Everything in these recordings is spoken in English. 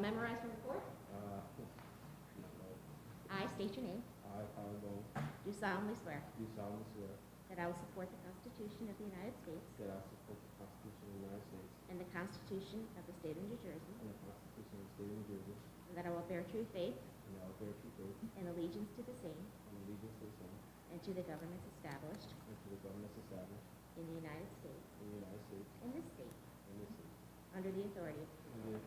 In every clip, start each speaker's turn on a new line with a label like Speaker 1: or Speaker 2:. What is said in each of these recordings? Speaker 1: memorize and report.
Speaker 2: Uh,
Speaker 1: I state your name.
Speaker 2: I, Howard Bo,
Speaker 1: Do solemnly swear
Speaker 2: do solemnly swear
Speaker 1: that I will support the Constitution of the United States
Speaker 2: that I will support the Constitution of the United States
Speaker 1: and the Constitution of the State of New Jersey,
Speaker 2: and the Constitution of the State of New Jersey,
Speaker 1: and that I will bear true faith
Speaker 2: and that I will bear true faith
Speaker 1: and allegiance to the same
Speaker 2: and allegiance to the same,
Speaker 1: and to the governments established
Speaker 2: and to the governments established
Speaker 1: in the United States
Speaker 2: in the United States
Speaker 1: and this state,
Speaker 2: and this state,
Speaker 1: under the authority,
Speaker 2: under-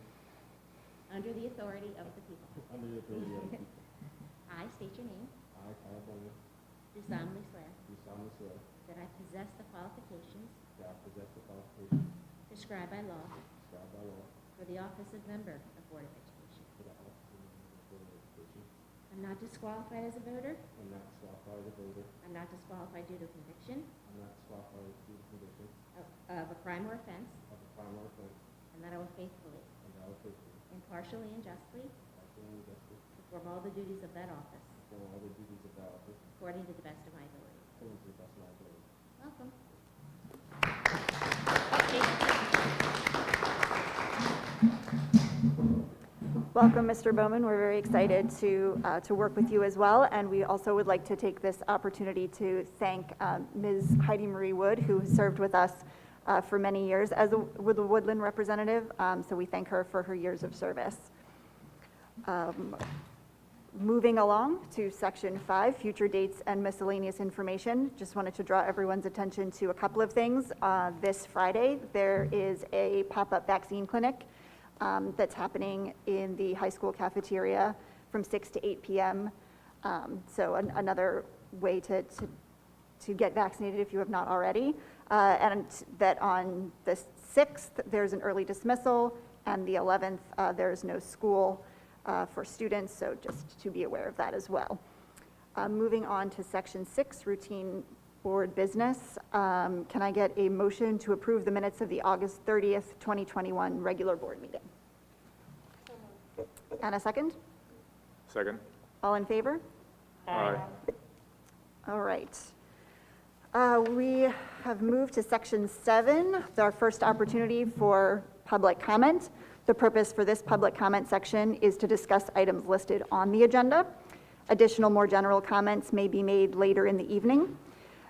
Speaker 1: under the authority of the people.
Speaker 2: under the authority of the people.
Speaker 1: I state your name.
Speaker 2: I, Howard Bo,
Speaker 1: Do solemnly swear
Speaker 2: do solemnly swear
Speaker 1: that I possess the qualifications
Speaker 2: that I possess the qualifications
Speaker 1: prescribed by law
Speaker 2: prescribed by law
Speaker 1: for the office of member of Board of Education.
Speaker 2: for the office of member of the Board of Education.
Speaker 1: I'm not disqualified as a voter.
Speaker 2: I'm not disqualified as a voter.
Speaker 1: I'm not disqualified due to conviction
Speaker 2: I'm not disqualified due to conviction
Speaker 1: of- of a crime or offense,
Speaker 2: of a crime or offense,
Speaker 1: and that I will faithfully,
Speaker 2: and that I will faithfully,
Speaker 1: impartially, and justly
Speaker 2: impartially, and justly
Speaker 1: perform all the duties of that office
Speaker 2: Perform all the duties of that office
Speaker 1: according to the best of my ability.
Speaker 2: according to the best of my ability.
Speaker 1: Welcome.
Speaker 3: Welcome, Mr. Bowman. We're very excited to, uh, to work with you as well, and we also would like to take this opportunity to thank um, Ms. Heidi Marie Wood, who has served with us uh, for many years as a- with the Woodland representative, Um, so we thank her for her years of service. Um, Moving along to section five, future dates and miscellaneous information. Just wanted to draw everyone's attention to a couple of things. Uh, This Friday, there is a pop-up vaccine clinic um, that's happening in the high school cafeteria from 6 to 8 PM. Um, So an- another way to, to to get vaccinated if you have not already. Uh, And that on the 6th, there's an early dismissal, and the 11th, uh, there's no school uh, for students, so just to be aware of that as well. Uh, Moving on to Section 6, routine board business. Um, Can I get a motion to approve the minutes of the August 30th, 2021 regular board meeting? And a second?
Speaker 4: Second.
Speaker 3: All in favor?
Speaker 4: Aye.
Speaker 3: All right. Uh, We have moved to section seven, It's our first opportunity for public comment. The purpose for this public comment section is to discuss items listed on the agenda. Additional, more general comments may be made later in the evening.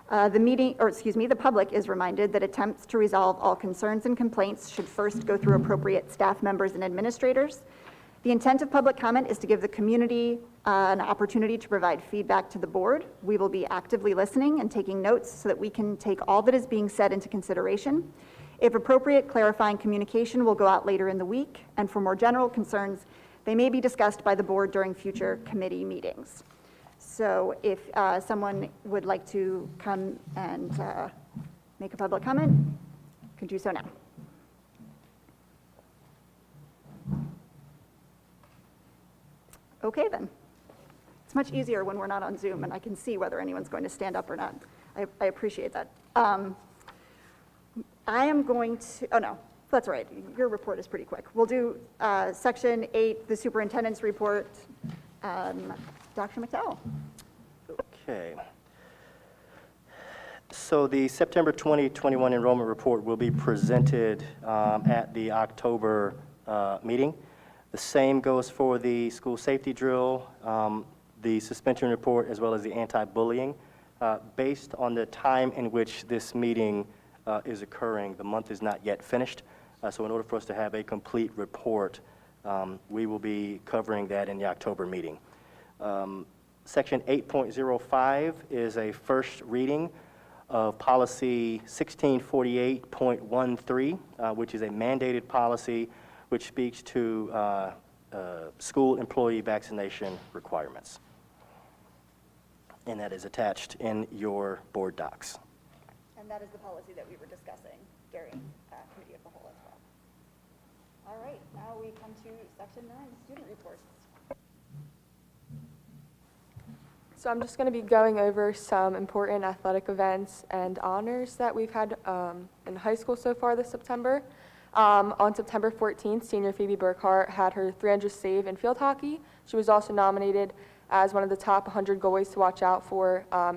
Speaker 3: Uh, The meeting, or excuse me, the public is reminded that attempts to resolve all concerns and complaints should first go through appropriate staff members and administrators. The intent of public comment is to give the community uh, an opportunity to provide feedback to the board. We will be actively listening and taking notes so that we can take all that is being said into consideration. If appropriate, clarifying communication will go out later in the week, and for more general concerns, they may be discussed by the board during future committee meetings. So if uh, someone would like to come and uh, make a public comment, could do so now. Okay, then. It's much easier when we're not on Zoom and I can see whether anyone's going to stand up or not. I I appreciate that. Um, I am going to, oh no, that's all right. Your report is pretty quick. We'll do uh, Section 8, the superintendent's report. Um, Dr. McDowell?
Speaker 5: Okay. So the September 2021 enrollment report will be presented um, at the October uh, meeting. The same goes for the school safety drill, um, the suspension report, as well as the anti-bullying. Uh, Based on the time in which this meeting uh, is occurring, the month is not yet finished, Uh, so in order for us to have a complete report, um, we will be covering that in the October meeting. Um, Section 8.05 is a first reading of Policy 1648.13, uh, which is a mandated policy which speaks to uh, uh, school employee vaccination requirements. And that is attached in your board docs.
Speaker 3: And that is the policy that we were discussing during uh, Committee of the Whole as well. All right, now we come to Section 9, student reports.
Speaker 6: So I'm just going to be going over some important athletic events and honors that we've had um, in high school so far this September. Um, on September 14th, senior Phoebe Burkhart had her 300 save in field hockey. She was also nominated as one of the top 100 goalies to watch out for um,